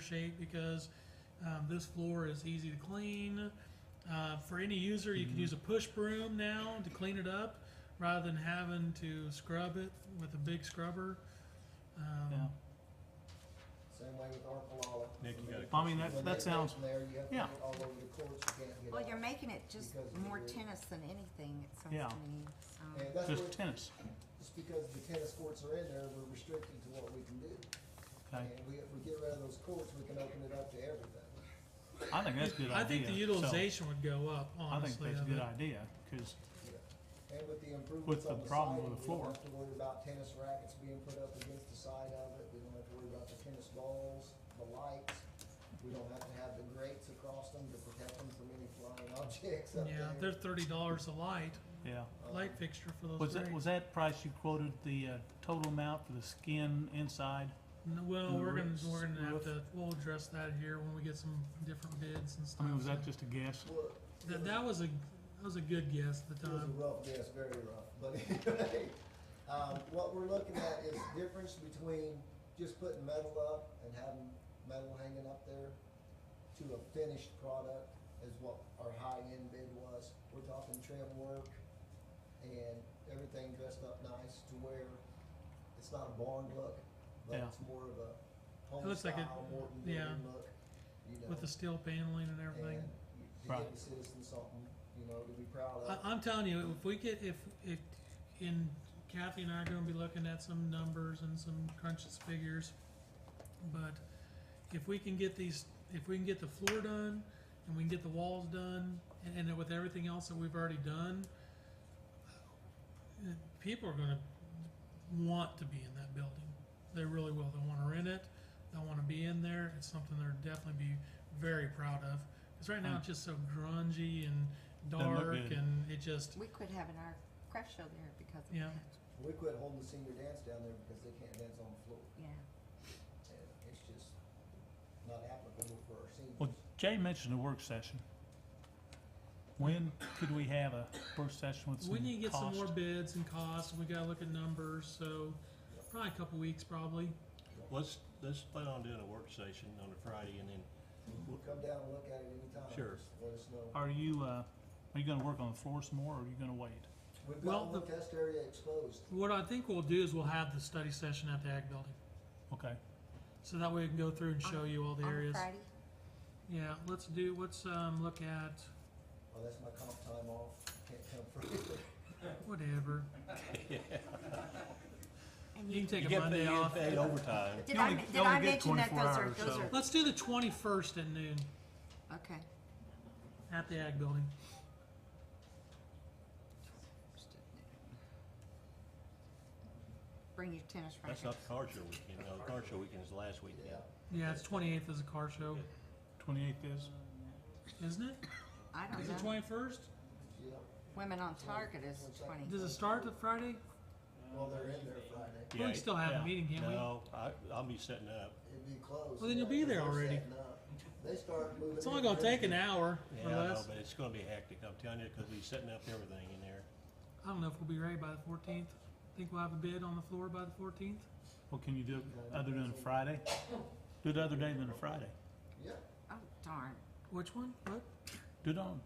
shape because um, this floor is easy to clean. Uh, for any user, you can Mm-hmm. use a push broom now to clean it up rather than having to scrub it with a big scrubber. Yeah. Um, Same way with Arpalala. Nick, you got a I mean, that, When they that go sounds, from there, you have to yeah. get all over the courts, you can't get Well, out. you're making it just Because of the more roof. tennis than anything, it Yeah. sounds to me, so. And that's just what, tennis, just because the tennis courts are in there, we're restricted to what we can do. okay? And we, if we get rid of those courts, we can open it up to everything. I think that's a good idea. I think the so utilization would go up, I think honestly. that's of a good it. idea, cause, And with the improvements the on the problem side, with the we don't floor. have to worry about tennis rackets being put up against the side of it, we don't have to worry about the tennis balls, the lights. We don't have to have the grates across them to protect them from any flying objects up Yeah, there. they're thirty dollars a light, yeah. Um, light fixture for those Was that, rates. was that price you quoted, the, uh, total amount for the skin inside? No, Well, the we're gonna, roofs- we're gonna have roof? to, we'll address that here when we get some different bids and stuff. I mean, was that so. just a guess? Well, That, that was a, that was a good guess at the It was a time. rough guess, very rough, but anyway, um, what we're looking at is difference between just putting metal up and having metal hanging up there to a finished product is what our high-end bid was. We're talking trim work and everything dressed up nice to where it's not a barn look, but Yeah. it's more of a home looks like it- style, Morton yeah. building look, you know. With the steel paneling and everything. And to Right. give the citizens something, you know, to be proud I, of. I'm telling you, if we get, if, if, in Kathy and I are gonna be looking at some numbers and some crunches figures. But if we can get these, if we can get the floor done and we can get the walls done and, and with everything else that we've already done, uh, people are gonna want to be in that building. They really will. They wanna rent it. They wanna be in there. It's something they're definitely be very proud of. Cause right now it's just so grungy and Doesn't Hmm. look dark good. and it just, We could have an art craft show there because of Yeah. that, We quit holding the senior dance down there because they can't dance on the floor. yeah. And it's just not applicable for our seniors. Well, Jay mentioned a work session. When could we have a work session with some We need to get some cost? more bids and costs, and we gotta look at numbers, so probably a couple weeks, probably. Let's, let's plan on doing a work session on a Friday and then, We'll Come down and look at it anytime. Sure. Just Let us know. Are you, uh, are you gonna work on the floor some more, or are you gonna wait? We've well, got one the- test area exposed. What I think we'll do is we'll have the study session at the ag building, Okay, so that way we can go through and show you all the On areas. Friday, Yeah, let's do, let's, um, look at, Oh, that's my comp time off. Can't come for whatever. and You you, can take you a get paid, Monday off. paid overtime. did You I, only- men- you did only I get mention that 24 those are, hours, those so- are, Let's do the twenty-first at noon okay. at the ag building. Bring your tennis racket. That's not the car show weekend, no, the car show weekend is last weekend. Yeah. Yeah, it's twenty-eighth is a car show, twenty-eighth is? isn't it? I Is don't it know, twenty-first? Yeah. Women on Target is twenty. Does it start at Friday? Well, they're in there Friday. We can still have yeah. a meeting, can't we? No, I, I'll be setting up. It'd be closed. Well, then you'll be yeah, 'cause there they're already. setting up. They start moving. It's only in gonna take an Thursday. hour Yeah, or I know, less. but it's gonna be hectic, I'm telling you, cause we're setting up everything in there. I don't know if we'll be ready by the fourteenth. Think we'll have a bid on the floor by the fourteenth? What can you do other than a Friday? Do it other day than a Friday. Yeah. Oh darn, Which one? What? Do it on,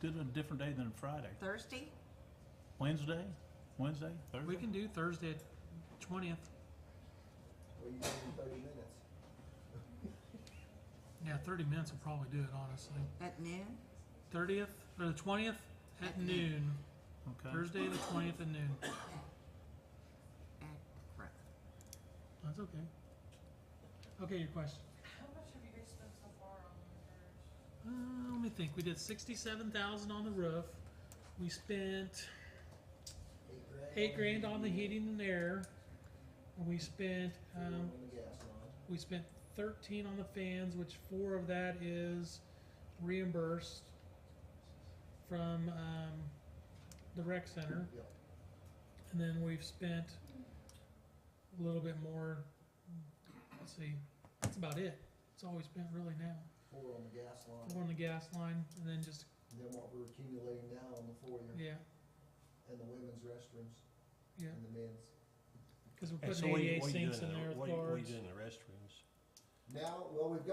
do it on a different day than a Friday. Thursday, Wednesday, Wednesday, We Thursday? can do Thursday at twentieth. Well, you give them thirty minutes. Yeah, thirty minutes will probably do it, honestly. at noon, Thirtieth, or the twentieth at At noon. noon. Okay, Thursday, the twentieth at noon. at, right. That's okay. Okay, your question. How much have you guys spent so far on the repairs? Uh, let me think. We did sixty-seven thousand on the roof. We spent Eight grand. eight grand on the heating and air. We spent, Fuel um, and the gas line. We spent thirteen on the fans, which four of that is reimbursed from um, the rec center, Yep. and then we've spent a little bit more. Let's see, that's about it. That's all we spent really now. Four on the gas line. Four on the gas line, and then just And then what we're accumulating now on the foyer yeah, and the women's restrooms yeah, and the men's. because we're And putting so what are you- ADA what are you sinks doing in the- there with What are you- what are you guards. doing in the restrooms? Now, well, we've got